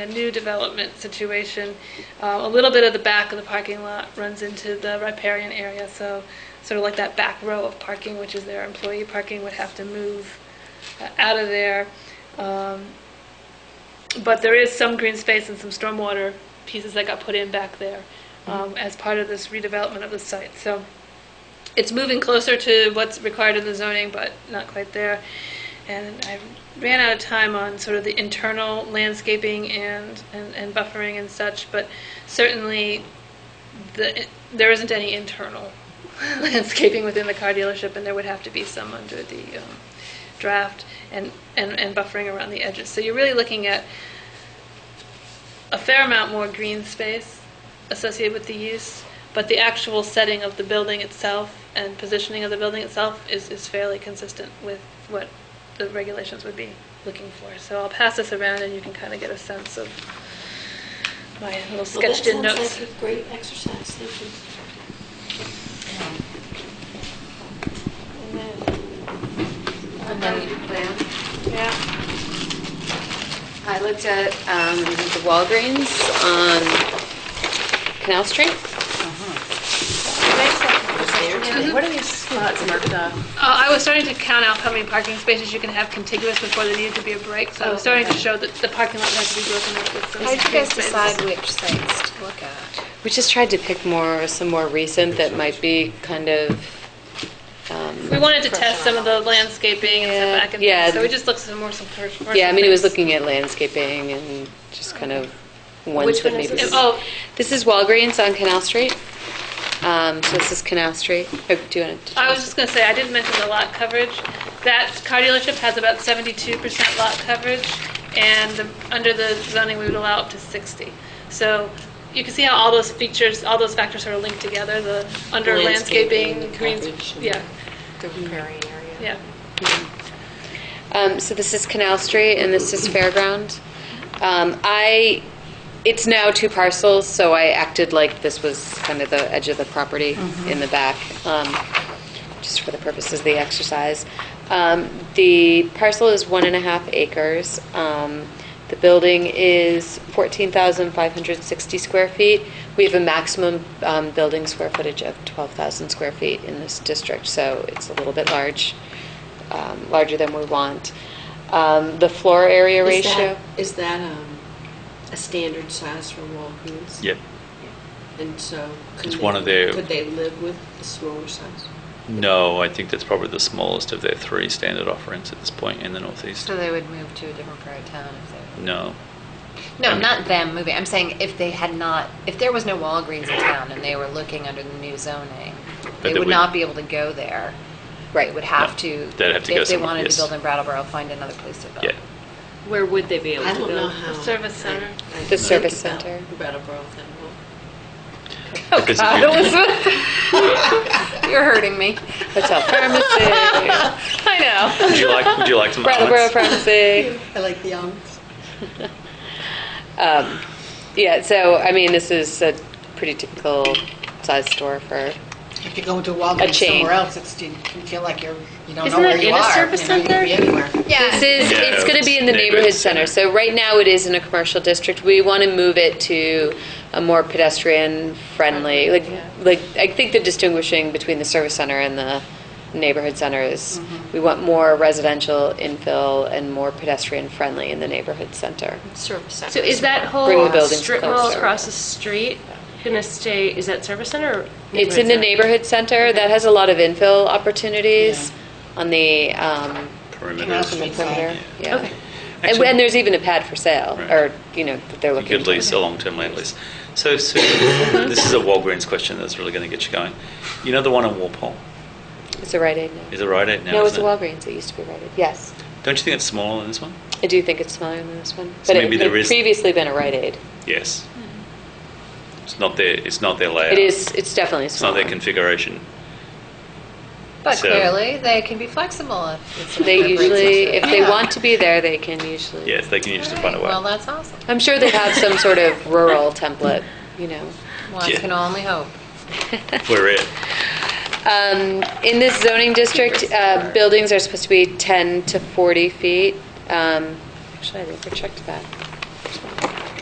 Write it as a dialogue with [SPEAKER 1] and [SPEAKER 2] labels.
[SPEAKER 1] a new development situation. Uh, A little bit of the back of the parking lot runs into the riparian area, so sort of like that back row of parking, which is their employee parking, would have to move uh, out of there. Um, But there is some green space and some stormwater pieces that got put in back there um, as part of this redevelopment of the site. So it's moving closer to what's required in the zoning, but not quite there. And I ran out of time on sort of the internal landscaping and, and, and buffering and such, but certainly the, there isn't any internal landscaping within the car dealership, and there would have to be some under the um, draft and, and, and buffering around the edges. So you're really looking at a fair amount more green space associated with the use, but the actual setting of the building itself and positioning of the building itself is, is fairly consistent with what the regulations would be looking for. So I'll pass this around and you can kind of get a sense of my little
[SPEAKER 2] Well, that
[SPEAKER 1] sketched in notes.
[SPEAKER 2] Sounds like a great exercise, thank you. And
[SPEAKER 3] And
[SPEAKER 2] then-
[SPEAKER 3] then you plan.
[SPEAKER 2] Yeah,
[SPEAKER 3] I looked at um, the Walgreens on Canal Street. What are these spots marked up?
[SPEAKER 1] Uh, I was starting to count out how many parking spaces you can have contiguous before there needed to be a break, so I was starting to show that the parking lot has to be broken up with some.
[SPEAKER 4] How did you guys
[SPEAKER 1] spaces.
[SPEAKER 4] decide which sites to look at?
[SPEAKER 3] We just tried to pick more, some more recent that might be kind of, um,
[SPEAKER 1] We wanted to test some of the landscaping and
[SPEAKER 3] Yeah,
[SPEAKER 1] setback,
[SPEAKER 3] yeah.
[SPEAKER 1] and so we just looked at some more some first.
[SPEAKER 3] yeah, I mean, it was looking at landscaping and just kind of ones
[SPEAKER 4] Which
[SPEAKER 3] that
[SPEAKER 4] one is
[SPEAKER 3] maybe.
[SPEAKER 4] this?
[SPEAKER 1] Oh,
[SPEAKER 3] This is Walgreens on Canal Street. Um, So this is Canal Street. Oh, Do you want to?
[SPEAKER 1] I was just gonna say, I didn't mention the lot coverage. That car dealership has about seventy-two percent lot coverage, and the- under the zoning, we would allow up to sixty. So you can see how all those features, all those factors are linked together, the under
[SPEAKER 4] Landscaping,
[SPEAKER 1] landscaping, greens,
[SPEAKER 4] coverage, and-
[SPEAKER 1] yeah,
[SPEAKER 4] The riparian area?
[SPEAKER 1] yeah.
[SPEAKER 3] Um, so this is Canal Street and this is Fairground. Um, I, it's now two parcels, so I acted like this was kind of the edge of the property in the back, um, just for the purposes of the exercise. Um, the parcel is one and a half acres. Um, the building is 14,560 square feet. We have a maximum um, building square footage of 12,000 square feet in this district, so it's a little bit large um, larger than we want. Um, The floor area
[SPEAKER 2] Is that-
[SPEAKER 3] ratio,
[SPEAKER 2] Is that um, a standard size for Walgreens?
[SPEAKER 5] Yep.
[SPEAKER 2] And so. could
[SPEAKER 5] It's
[SPEAKER 2] they-
[SPEAKER 5] one of their-
[SPEAKER 2] Could they live with the smaller size?
[SPEAKER 5] No, I think that's probably the smallest of their three standard offerings at this point in the Northeast.
[SPEAKER 4] So they would move to a different part of town if they...
[SPEAKER 5] No.
[SPEAKER 4] No, not them moving, I'm saying if they had not, if there was no Walgreens in town and they were looking under the new zoning, they
[SPEAKER 5] that
[SPEAKER 4] would
[SPEAKER 5] we-
[SPEAKER 4] not be able to go there. Right, would have to...
[SPEAKER 5] They'd have to go
[SPEAKER 4] If they
[SPEAKER 5] somewhere,
[SPEAKER 4] wanted to
[SPEAKER 5] yes.
[SPEAKER 4] build in Brattleboro, find another place to build.
[SPEAKER 5] Yeah.
[SPEAKER 6] Where would they be able
[SPEAKER 2] I
[SPEAKER 6] to
[SPEAKER 2] don't
[SPEAKER 6] build?
[SPEAKER 2] know how.
[SPEAKER 1] The service center.
[SPEAKER 2] I- I
[SPEAKER 3] The
[SPEAKER 2] think
[SPEAKER 3] service
[SPEAKER 2] about
[SPEAKER 3] center.
[SPEAKER 2] Brattleboro then Walgreens.
[SPEAKER 3] Oh,
[SPEAKER 5] Because if you-
[SPEAKER 4] You're hurting me.
[SPEAKER 3] hotel pharmacy,
[SPEAKER 4] I know.
[SPEAKER 5] Would you like, would you like some
[SPEAKER 3] Brattleboro
[SPEAKER 5] almonds?
[SPEAKER 3] pharmacy.
[SPEAKER 2] I like the almonds.
[SPEAKER 3] Um, Yeah, so, I mean, this is a pretty typical size store for,
[SPEAKER 7] If you go into
[SPEAKER 3] A
[SPEAKER 7] Walgreens
[SPEAKER 3] chain.
[SPEAKER 7] somewhere else, it's, you can feel like you're, you don't know
[SPEAKER 1] Isn't
[SPEAKER 7] where
[SPEAKER 1] that
[SPEAKER 7] you
[SPEAKER 1] in
[SPEAKER 7] are.
[SPEAKER 1] a service
[SPEAKER 7] You know, you
[SPEAKER 1] center?
[SPEAKER 7] could be anywhere.
[SPEAKER 3] this is,
[SPEAKER 5] Yeah,
[SPEAKER 3] it's going to be in the neighborhood
[SPEAKER 5] it's neighborhood
[SPEAKER 3] center.
[SPEAKER 5] center.
[SPEAKER 3] So right now, it is in a commercial district. We want to move it to a more pedestrian-friendly, like, like, I think the distinguishing between the service center and the neighborhood center is, we want more residential infill and more pedestrian-friendly in the neighborhood center.
[SPEAKER 2] Service center.
[SPEAKER 6] So is that
[SPEAKER 3] Bring the
[SPEAKER 6] whole
[SPEAKER 3] buildings
[SPEAKER 6] strip mall
[SPEAKER 3] closer.
[SPEAKER 6] across the street gonna stay, is that service center or?
[SPEAKER 3] It's in the neighborhood center, that has a lot of infill opportunities on the, um,
[SPEAKER 5] Perimeter.
[SPEAKER 7] Canal
[SPEAKER 3] on the
[SPEAKER 7] Street
[SPEAKER 3] perimeter,
[SPEAKER 7] side.
[SPEAKER 3] yeah.
[SPEAKER 6] Okay.
[SPEAKER 3] And
[SPEAKER 5] Actually-
[SPEAKER 3] when there's even a pad for sale,
[SPEAKER 5] Right.
[SPEAKER 3] or, you know, that they're
[SPEAKER 5] You
[SPEAKER 3] looking.
[SPEAKER 5] could lease, a long-term land lease. So, Sue, this is a Walgreens question that's really going to get you going. You know the one on Walpole?
[SPEAKER 3] It's a Rite Aid now.
[SPEAKER 5] Is it Rite Aid now?
[SPEAKER 3] No, it's a
[SPEAKER 5] isn't it?
[SPEAKER 3] Walgreens, it used to be Rite Aid, yes.
[SPEAKER 5] Don't you think it's smaller than this one?
[SPEAKER 3] I do think it's smaller than this one,
[SPEAKER 5] So
[SPEAKER 3] but it
[SPEAKER 5] maybe
[SPEAKER 3] it
[SPEAKER 5] there
[SPEAKER 3] had
[SPEAKER 5] is-
[SPEAKER 3] previously been a Rite Aid.
[SPEAKER 5] Yes. It's not their, it's not their layout.
[SPEAKER 3] It is, it's definitely
[SPEAKER 5] Oh, It's not
[SPEAKER 3] smaller.
[SPEAKER 5] their configuration.
[SPEAKER 4] But
[SPEAKER 5] So-
[SPEAKER 4] clearly, they can be flexible if it's... an
[SPEAKER 3] They
[SPEAKER 4] appropriate
[SPEAKER 3] usually, if
[SPEAKER 4] situation.
[SPEAKER 3] they want to be there, they can usually.
[SPEAKER 5] Yes, they can usually find a way.
[SPEAKER 4] Well, that's awesome.
[SPEAKER 3] I'm sure they have some sort of rural template, you know.
[SPEAKER 4] One
[SPEAKER 5] Yeah.
[SPEAKER 4] can only hope.
[SPEAKER 5] We're it.
[SPEAKER 3] Um, In this zoning district, uh, buildings are supposed to be 10 to 40 feet. Um, Actually, I never checked that.